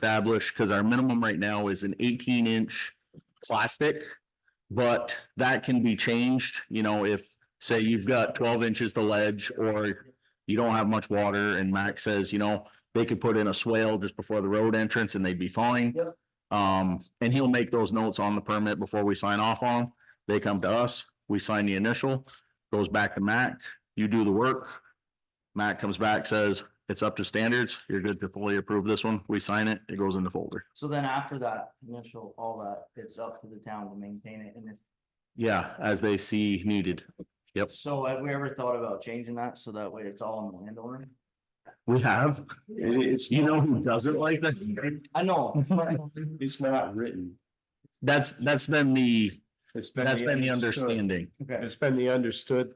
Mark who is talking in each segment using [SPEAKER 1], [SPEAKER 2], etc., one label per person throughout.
[SPEAKER 1] establish, because our minimum right now is an eighteen inch plastic. But that can be changed, you know, if, say you've got twelve inches to ledge or you don't have much water and Mac says, you know, they could put in a swale just before the road entrance and they'd be fine.
[SPEAKER 2] Yep.
[SPEAKER 1] Um, and he'll make those notes on the permit before we sign off on them. They come to us, we sign the initial, goes back to Mac, you do the work. Mac comes back, says, it's up to standards, you're good to fully approve this one, we sign it, it goes in the folder.
[SPEAKER 2] So then after that initial, all that, it's up to the town to maintain it, and if,
[SPEAKER 1] Yeah, as they see needed. Yep.
[SPEAKER 2] so have we ever thought about changing that, so that way it's all on the landowner?
[SPEAKER 1] We have, it's, you know who doesn't like that?
[SPEAKER 2] I know,
[SPEAKER 3] It's not written.
[SPEAKER 1] That's, that's been the,
[SPEAKER 3] It's
[SPEAKER 1] that's been the understanding.
[SPEAKER 2] okay,
[SPEAKER 3] It's been the understood.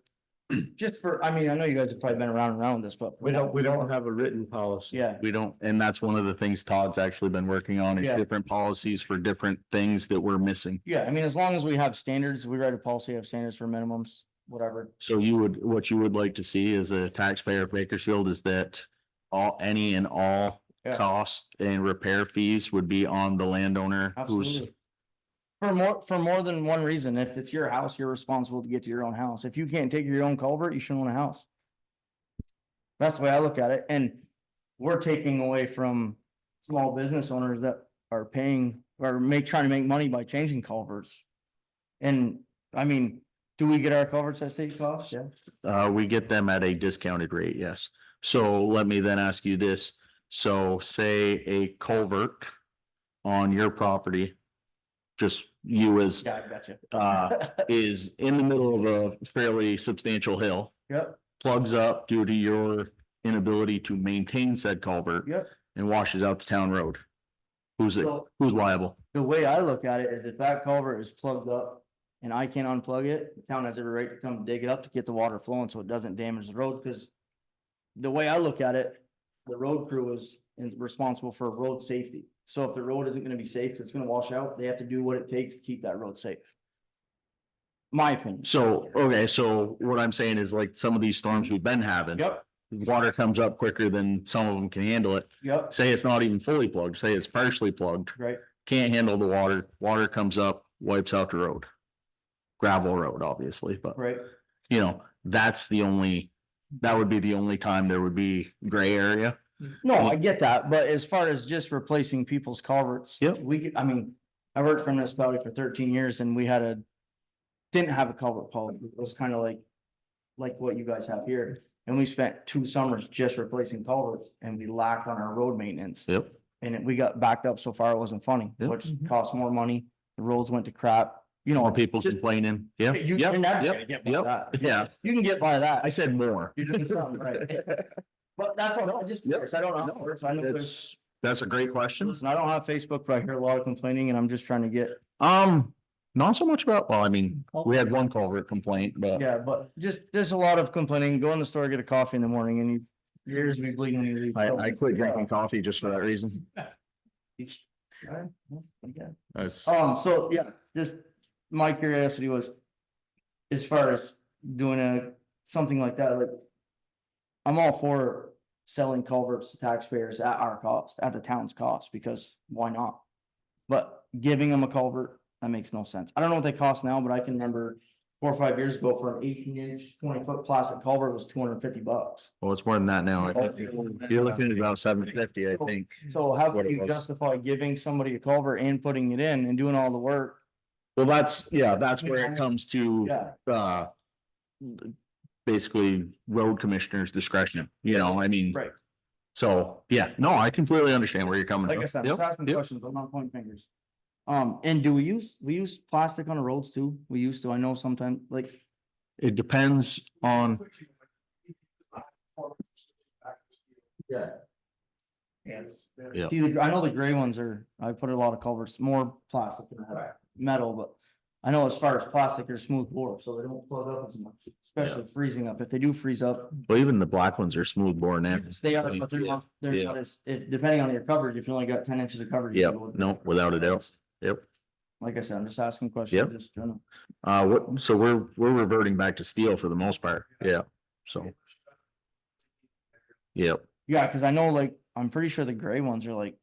[SPEAKER 2] just for, I mean, I know you guys have probably been around and around this, but.
[SPEAKER 3] We don't, we don't have a written policy.
[SPEAKER 2] Yeah,
[SPEAKER 1] We don't, and that's one of the things Todd's actually been working on is
[SPEAKER 2] Yeah.
[SPEAKER 1] different policies for different things that we're missing.
[SPEAKER 2] yeah, I mean, as long as we have standards, we write a policy, have standards for minimums, whatever,
[SPEAKER 1] So you would, what you would like to see as a taxpayer of Bakersfield is that all, any and all
[SPEAKER 2] Yeah.
[SPEAKER 1] costs and repair fees would be on the landowner who's,
[SPEAKER 2] absolutely. For more, for more than one reason, if it's your house, you're responsible to get to your own house, if you can't take your own culvert, you shouldn't own a house. That's the way I look at it, and we're taking away from small business owners that are paying or make, trying to make money by changing culverts. And, I mean, do we get our culverts at state cost? Yeah.
[SPEAKER 1] uh, we get them at a discounted rate, yes. So let me then ask you this. So say a culvert on your property, just you as,
[SPEAKER 2] Yeah, I gotcha.
[SPEAKER 1] uh, is in the middle of a fairly substantial hill.
[SPEAKER 2] Yep,
[SPEAKER 1] plugs up due to your inability to maintain said culvert
[SPEAKER 2] yep.
[SPEAKER 1] and washes out the town road. Who's it,
[SPEAKER 2] So
[SPEAKER 1] who's liable?
[SPEAKER 2] the way I look at it is if that culvert is plugged up and I can't unplug it, the town has every right to come dig it up to get the water flowing so it doesn't damage the road, because the way I look at it, the road crew is is responsible for road safety. So if the road isn't gonna be safe, it's gonna wash out, they have to do what it takes to keep that road safe. My opinion.
[SPEAKER 1] So, okay, so what I'm saying is like some of these storms we've been having,
[SPEAKER 2] Yep,
[SPEAKER 1] water comes up quicker than some of them can handle it.
[SPEAKER 2] yep,
[SPEAKER 1] Say it's not even fully plugged, say it's partially plugged,
[SPEAKER 2] right,
[SPEAKER 1] can't handle the water, water comes up, wipes out the road. Gravel road, obviously, but
[SPEAKER 2] right.
[SPEAKER 1] you know, that's the only, that would be the only time there would be gray area.
[SPEAKER 2] No, I get that, but as far as just replacing people's culverts.
[SPEAKER 1] Yep.
[SPEAKER 2] We, could- I mean, I worked for municipality for thirteen years and we had a, didn't have a culvert policy. It was kind of like, like what you guys have here. And we spent two summers just replacing culverts and we lacked on our road maintenance.
[SPEAKER 1] Yep.
[SPEAKER 2] And it- we got backed up so far it wasn't funny,
[SPEAKER 1] Yep.
[SPEAKER 2] which cost more money. The roads went to crap, you know.
[SPEAKER 1] More people
[SPEAKER 2] just-
[SPEAKER 1] complaining, yeah.
[SPEAKER 2] You
[SPEAKER 1] Yep,
[SPEAKER 2] you're never
[SPEAKER 1] yep.
[SPEAKER 2] gonna get by
[SPEAKER 1] yep,
[SPEAKER 2] that.
[SPEAKER 1] yeah.
[SPEAKER 2] You can get by that.
[SPEAKER 1] I said more.
[SPEAKER 2] You're doing something right. But that's all, I just,
[SPEAKER 1] Yep.
[SPEAKER 2] curious. I don't know.
[SPEAKER 1] No,
[SPEAKER 2] how it works. I know there's-
[SPEAKER 1] That's, that's a great question.
[SPEAKER 2] Listen, I don't have Facebook, but I hear a lot of complaining and I'm just trying to get,
[SPEAKER 1] Um, not so much about, well, I mean, we had one culvert complaint, but
[SPEAKER 2] yeah, but just, there's a lot of complaining. Go in the store, get a coffee in the morning and you, your ears will be bleeding. when you leave.
[SPEAKER 1] I, I quit drinking coffee just for that reason.
[SPEAKER 2] Alright, well, okay.
[SPEAKER 1] That's,
[SPEAKER 2] Um, so, yeah, just, my curiosity was, as far as doing a, something like that, like, I'm all for selling culverts to taxpayers at our cost, at the town's cost, because why not? But giving them a culvert, that makes no sense. I don't know what they cost now, but I can remember four or five years ago for an eighteen inch, twenty foot plastic culvert was two hundred and fifty bucks.
[SPEAKER 1] well, it's more than that now. I
[SPEAKER 2] Oh,
[SPEAKER 1] think. You're looking at about seven fifty, I think.
[SPEAKER 2] So how
[SPEAKER 1] What
[SPEAKER 2] can
[SPEAKER 1] it
[SPEAKER 2] you
[SPEAKER 1] was.
[SPEAKER 2] justify giving somebody a culvert and putting it in and doing all the work?
[SPEAKER 1] Well, that's, yeah, that's where it comes to,
[SPEAKER 2] Yeah,
[SPEAKER 1] uh, basically road commissioner's discretion, you know, I mean.
[SPEAKER 2] Right.
[SPEAKER 1] So, yeah, no, I completely understand where you're coming from.
[SPEAKER 2] like I said, I'm
[SPEAKER 1] Yep,
[SPEAKER 2] just asking
[SPEAKER 1] yep.
[SPEAKER 2] questions, but not pointing fingers. Um, and do we use, we use plastic on the roads too? We used to, I know sometimes, like,
[SPEAKER 1] It depends on
[SPEAKER 2] yeah.
[SPEAKER 3] Yes.
[SPEAKER 1] Yeah.
[SPEAKER 2] See, the- I know the gray ones are, I put a lot of culverts, more plastic than I have metal, but I know as far as plastic, they're smooth bore, so they don't plug up as much, especially freezing up. If they do freeze up,
[SPEAKER 1] Well, even the black ones are smooth bore now.
[SPEAKER 2] stay out, but they're not, they're
[SPEAKER 1] Yeah.
[SPEAKER 2] not as, if, depending on your coverage, if you only got ten inches of coverage. you
[SPEAKER 1] Yep,
[SPEAKER 2] go with-
[SPEAKER 1] no, without a doubt. Yep.
[SPEAKER 2] Like I said, I'm just asking questions,
[SPEAKER 1] Yep.
[SPEAKER 2] just general.
[SPEAKER 1] Uh, what, so we're, we're reverting back to steel for the most part. Yeah, so. Yep,
[SPEAKER 2] Yeah, cause I know like, I'm pretty sure the gray ones are like